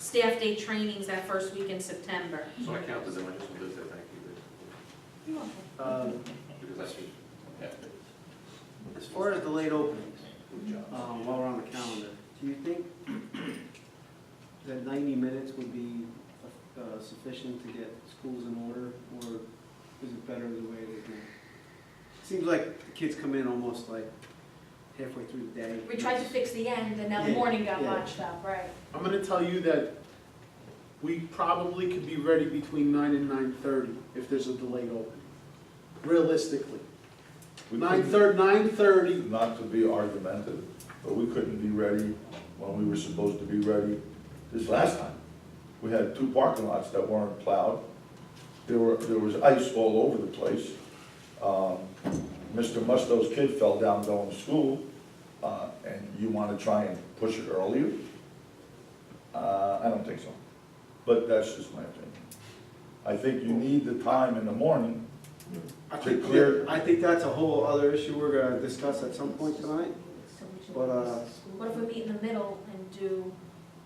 staff day trainings that first week in September. So I count as an initial visit, thank you, Um, because I should. As far as the late openings, um, while we're on the calendar, do you think that 90 minutes would be uh, sufficient to get schools in order, or is it better the way they do? It Seems like the kids come in almost like halfway through the day. We tried to fix the end, and now the Yeah, morning got yeah. botched up, right? I'm gonna tell you that we probably could be ready between nine and nine thirty if there's a delayed opening, realistically. We Nine couldn't- thirty, nine thirty, Not to be argumentative, but we couldn't be ready when we were supposed to be ready this last time. We had two parking lots that weren't plowed. There were, there was ice all over the place. Um, Mr. Musto's kid fell down going to school, uh, and you want to try and push it earlier? Uh, I don't think so, but that's just my opinion. I think you need the time in the morning I to think- clear. I think that's a whole other issue we're gonna discuss at some point tonight. But, uh, What if we meet in the middle and do,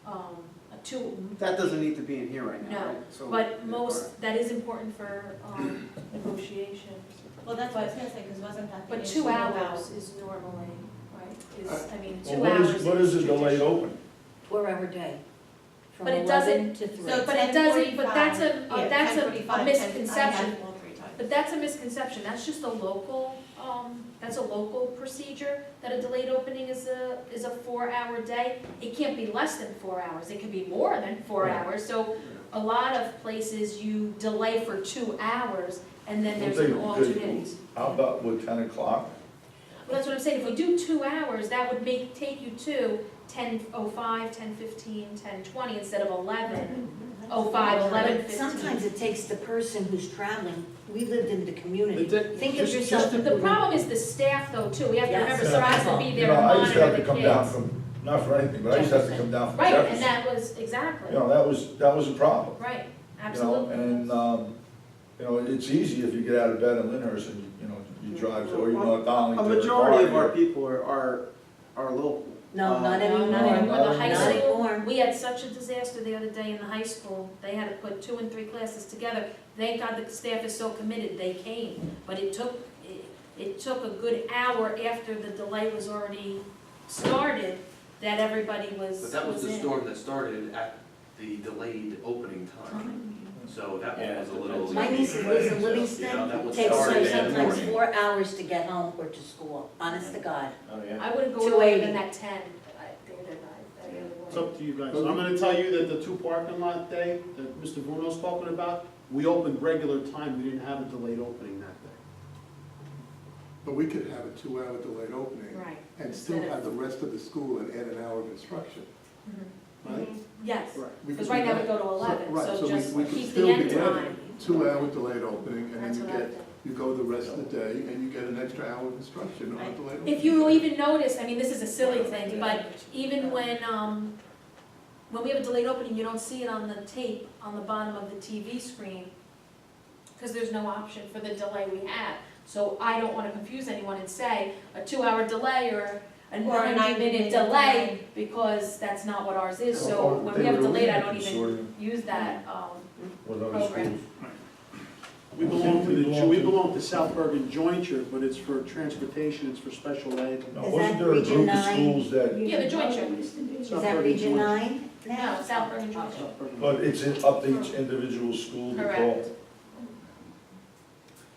um, a two, That doesn't need to be in here right now, No, right? So- but most, that is important for, um, negotiations. Well, that's what I was gonna say, because wasn't that the But issue two about- hours is normally, right, is, I mean, Uh, Well, two what hours is, is what is a delayed traditional. open? four-hour day, from But it doesn't- eleven to three. So But it doesn't, but that's a, 10:45, uh, that's a- 10:45, a 10 I misconception. had all three times. But that's a misconception, that's just a local, um, that's a local procedure, that a delayed opening is a, is a four-hour day. It can't be less than four hours, it can be more than four Right. hours, so a lot of places you delay for two hours, and then there's an Well, they- they- alternate. How about with ten o'clock? Well, that's what I'm saying, if we do two hours, that would make, take you to ten oh five, ten fifteen, ten twenty, instead of eleven oh five, eleven But fifteen. sometimes it takes the person who's traveling, we lived in the they community. did- Think of just- yourself, just The problem is the staff though, too, we have to Yes. remember, so I have to be You there know, to I used to monitor have the to kids. come down from, not for anything, but I used to have to Jefferson. come down from Right, and Jefferson. that was, You exactly, know, that was, that was a problem, right, you know, absolutely. and, um, you know, it's easy if you get out of bed in Lyndhurst and, you know, you drive, to- or you go to A Donington. or majority of our Gardner. people are, are, are local. No, Uh, not No, anymore. Not anymore, the high Not school, anymore. we had such a disaster the other day in the high school, they had to put two and three classes together. Thank God the staff is so committed, they came, but it took, it- it took a good hour after the delay was already started that everybody was, But that was the in. storm that started at the delayed opening time, so that one was a little. My niece who lives in Yeah, that Livingston, was takes her Saturday in the sometimes morning. four hours to get home or to school, honest to God. I wouldn't go lower 280. than that ten, I think that I, I really It's wouldn't. up to you guys. I'm gonna tell you that the two parking lot day that Mr. Bruno's talking about, we opened regular time, we didn't have a delayed opening that day. But we could have a two-hour delayed opening Right. and still have the rest of the school and add an hour of instruction, Mhm. right? Yes, We because could right do now we that. go to eleven, right, so so we- just we could keep the still end be ready. time. Two-hour delayed opening, and then That's you what I get, think. you go the rest of the day, and you get an extra hour of instruction on a delayed opening. If you even notice, I mean, this is a silly thing, but even when, um, when we have a delayed opening, you don't see it on the tape on the bottom of the TV screen, because there's no option for the delay we have. So I don't wanna confuse anyone and say a two-hour delay or a Or a ninety-minute 90-minute delay, delay. because that's not what ours is, Or so when they we have were delayed, I in don't even consortium use that, um, With other schools. program. We belong to the, jo- we belong to South Bergen Jointure, but it's for transportation, it's for special ed. Now, Is wasn't that there a Region group of nine? schools that, yeah, the joint show. Is South that Bergen Region Jointure. Nine now? No, South Bergen joint show. South Bergen. but it's in- up to each individual school to call. Correct.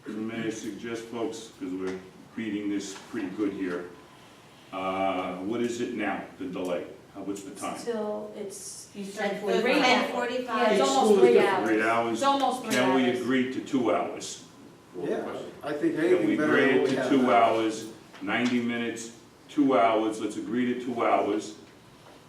May I suggest, folks, because we're reading this pretty good here, uh, what is it now, the delay? Uh, What's the time? Till it's, You Like said the Right now. ten yeah, forty-five. it's Each almost school is three different. hours. Three hours? It's almost three hours. Can we agree to two hours? Yeah, I think Can we anything better agree than what we to have. two now. hours, 90 minutes, two hours, let's agree to two hours,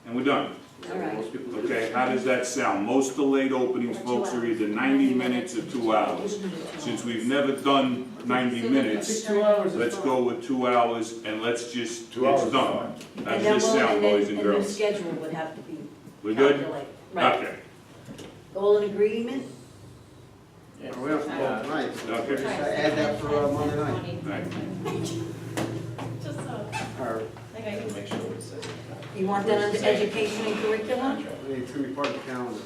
and we're done. All right. Most people do. Okay, how does that sound? Most delayed openings, folks, are either 90 minutes or two hours. Since we've never done 90 I minutes, think two hours is let's fine. go with two hours and let's just, Two hours it's is done. fine. How's this sound, boys and And their girls? schedule would have to be We're good? calculated. Right. Okay, All in agreement? Or We have to vote tonight. so Okay. we're just gonna Add that for uh, Monday night. All right. Just so, Or like, Okay. You want that under education and curriculum? It's gonna be part of the calendar.